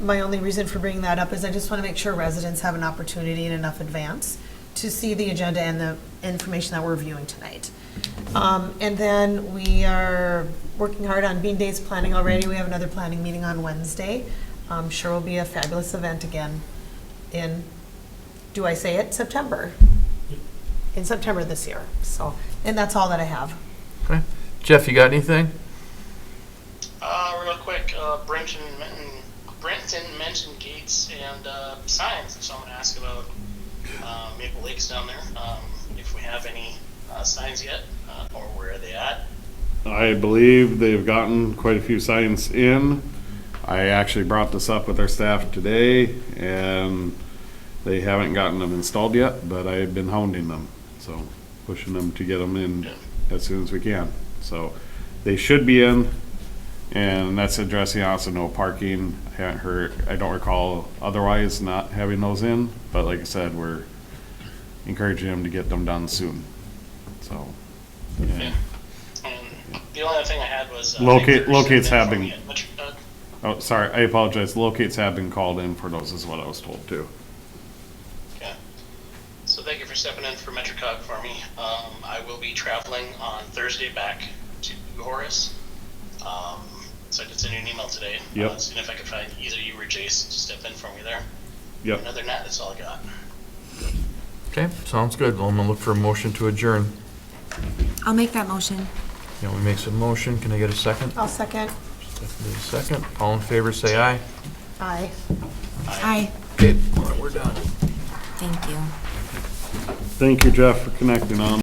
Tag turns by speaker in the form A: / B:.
A: My only reason for bringing that up is I just want to make sure residents have an opportunity in enough advance to see the agenda and the information that we're viewing tonight. Um, And then we are working hard on Bean Days planning already. We have another planning meeting on Wednesday. I'm sure will be a fabulous event again in, do I say it, September? In September this year, so, and that's all that I have.
B: Okay. Jeff, you got anything?
C: Uh, real quick, uh, Brenton, men- Brenton mentioned gates and uh, signs. If someone asked about uh, Maple Lakes down there, um, if we have any uh, signs yet, uh, or where are they at?
D: I believe they've gotten quite a few signs in. I actually brought this up with our staff today and they haven't gotten them installed yet, but I've been hounding them. So pushing them to get them in as soon as we can. So they should be in and that's addressing also no parking. I haven't heard, I don't recall otherwise not having those in, but like I said, we're encouraging them to get them done soon. So. yeah.
C: And the only other thing I had was uh,
D: Locate-
C: Victor sent
D: locates
C: in
D: have
C: for
D: been-
C: me at Butcher- uh,
D: Oh, sorry, I apologize. Locates have been called in for those, is what I was told too.
C: Okay. So thank you for stepping in for MetroCog for me. Um, I will be traveling on Thursday back to Horace. Um, so I did send you an email today.
D: Yep.
C: Uh, seeing if I could find either you or Jace to step in for me there.
D: Yep.
C: Other than that, that's all I got.
B: Okay, sounds good. Well, I'm gonna look for a motion to adjourn.
E: I'll make that motion.
B: Yeah, we make some motion. Can I get a second?
A: I'll second.
B: Stephanie, a second. All in favor, say aye.
A: Aye.
E: Aye.
B: Okay, we're done.
E: Thank you.
D: Thank you, Jeff, for connecting on.